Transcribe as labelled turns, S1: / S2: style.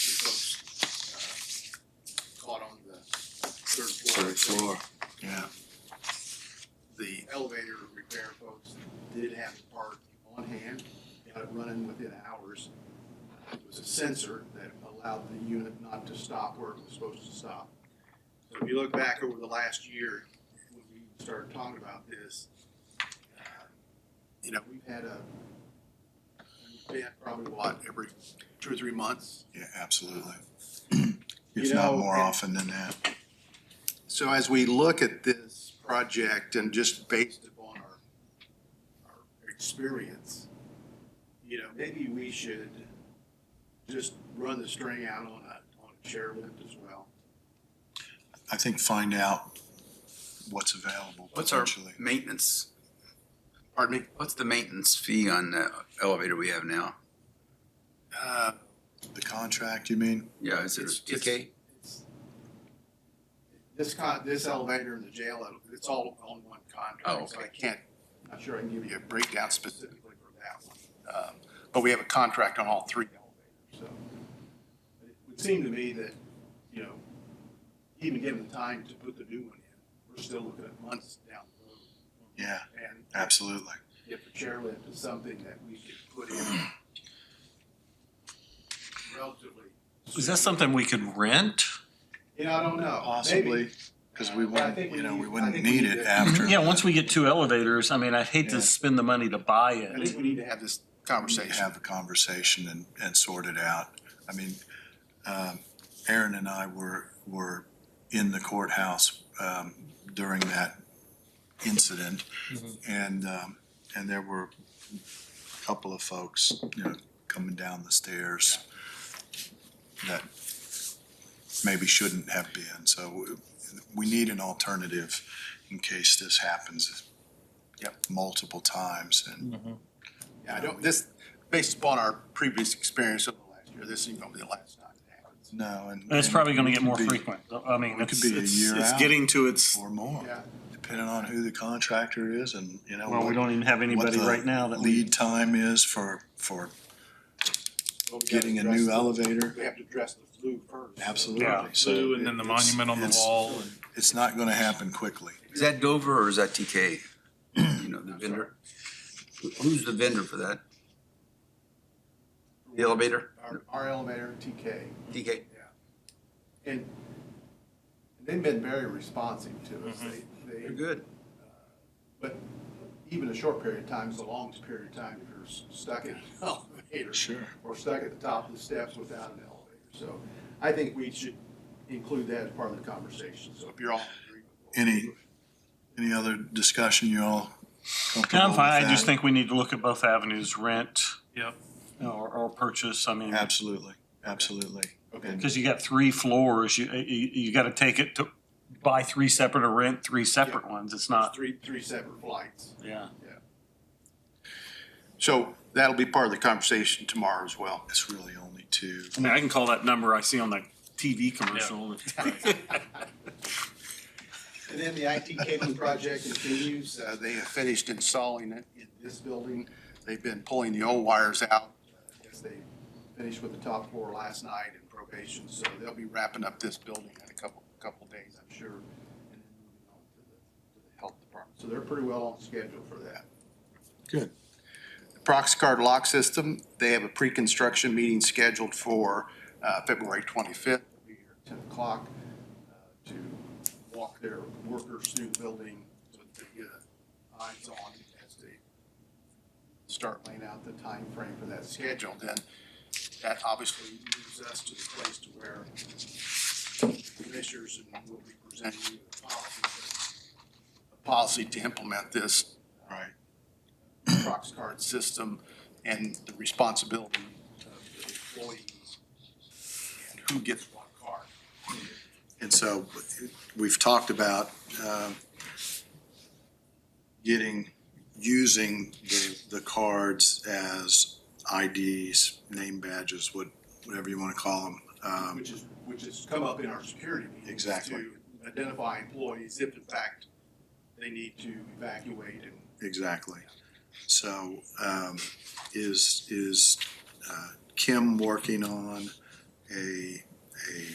S1: did have the part on hand, got it running within hours. It was a sensor that allowed the unit not to stop where it was supposed to stop. So if you look back over the last year, when we started talking about this, uh, you know, we've had a, we've had probably what, every two or three months.
S2: Yeah, absolutely.
S1: You
S2: If not
S1: know,
S2: more
S1: it-
S2: often than that.
S1: So as we look at this project and just based upon our, our experience, you know, maybe we should just run the string out on a, on a chairlift as well.
S2: I think find out what's available
S3: What's our
S2: potentially.
S3: maintenance,
S1: Pardon me?
S3: what's the maintenance fee on the elevator we have now?
S1: Uh,
S2: The contract, you mean?
S3: Yeah, is it a
S1: It's- it's-
S3: TK?
S1: it's- This con, this elevator in the jail, it's all on one
S3: Oh,
S1: contract, so
S3: okay.
S1: I can't, I'm not sure I can give you a breakdown specifically for that one. Um, But we have a contract on all three elevators, so. But It would seem to me that, you know, even given the time to put the new one in, we're still looking at months down the road.
S2: Yeah,
S1: And
S2: absolutely.
S1: if the chairlift is something that we could put in relatively.
S4: Is that something we could rent?
S1: You know, I don't know. Maybe-
S2: Possibly, because we
S1: Uh, I
S2: wouldn't,
S1: think
S2: you know,
S1: need-
S2: we
S1: I
S2: wouldn't
S1: think
S2: need
S1: need
S2: it
S1: to-
S2: after.
S4: Yeah, once we get two elevators, I mean, I'd hate
S2: Yeah.
S4: to spend the money to buy
S1: I
S4: it.
S1: think we need to have this
S2: we
S1: conversation.
S2: Have a conversation and, and sort it out. I mean, um, Aaron and I were, were in the courthouse, um, during that incident.
S4: Mhm.
S2: And, um, and there were a couple of folks, you know, coming down the stairs that maybe shouldn't have been. So we- we need an alternative in case this happens multiple times and
S1: Yeah, I don't, this, based upon our previous experience of the last year, this ain't gonna be the last time it happens.
S2: No, and.
S4: And it's
S2: and
S4: probably gonna
S2: it
S4: get
S2: could
S4: more
S2: be-
S4: frequent. I mean,
S2: It could
S4: it's,
S2: be a
S4: it's,
S2: year
S5: It's
S2: out
S5: getting to its,
S2: or more,
S1: Yeah,
S2: depending on who the contractor is and, you know.
S4: well, we
S2: what-
S4: don't even have anybody
S2: the
S4: right now that we,
S2: Lead time is for, for
S1: but we gotta
S2: getting a
S1: address
S2: new
S1: the-
S2: elevator.
S1: We have to address the flu first. so-
S4: Yeah.
S2: Absolutely. So
S5: blue and then the
S2: it-
S5: monument on the
S2: it's-
S5: wall and.
S2: It's not gonna happen quickly.
S3: Is that Dover or is that TK? You know, the vendor? Who- Who's the vendor for that? The elevator?
S1: Our, our elevator, TK,
S3: TK?
S1: and they've been very responsive to us. They, they.
S3: Mm-hmm. They're good.
S1: But even a short period of time is the longest period of time if you're s- stuck in an elevator.
S2: Sure.
S1: Or stuck at the top of the steps without an elevator. So I think we should include that as part of the conversation. So if you're all in agreement.
S2: Any- Any other discussion you all
S4: No,
S2: comfortable
S4: I'm
S2: with
S4: fine. I
S2: that?
S4: just think we need to look at both avenues, rent.
S5: Yep.
S4: Or, or purchase, I mean,
S2: Absolutely, absolutely.
S1: Okay.
S4: cause you got three floors, you, you, you gotta take it to buy three separate or rent three separate ones. It's
S1: There's
S4: not,
S1: Three, three separate flights.
S4: yeah.
S1: So that'll be part of the conversation tomorrow as well.
S2: It's really only two.
S4: I mean, I can call that number I see on the TV commercial.
S1: And then the IT cabling project continues. Uh, They have finished installing it in this building. They've been pulling the old wires out. I guess they finished with the top floor last night in probation, so they'll be wrapping up this building in a couple, couple days, I'm sure. and then moving on to the- to the Health department. So they're pretty well on schedule for that.
S2: Good.
S1: The Proxcard lock system, they have a pre-construction meeting scheduled for uh, February 25th. It'll be here at 10 o'clock uh, to walk their workers through the building so that they get a eyes on as they start laying out the time frame for that schedule. Then that obviously moves us to the place to where commissioners and we'll be presenting you a policy, a policy to implement this
S2: Right.
S1: Prox card system and the responsibility of the employees and who gets what card.
S2: And so we've talked about um, getting, using the, the cards as IDs, name badges, what, whatever you want to call them. Um,
S1: Which is, which has come up in our security meetings.
S2: Exactly.
S1: To identify employees if in fact they need to evacuate and
S2: Exactly. So um, is, is uh, Kim working on a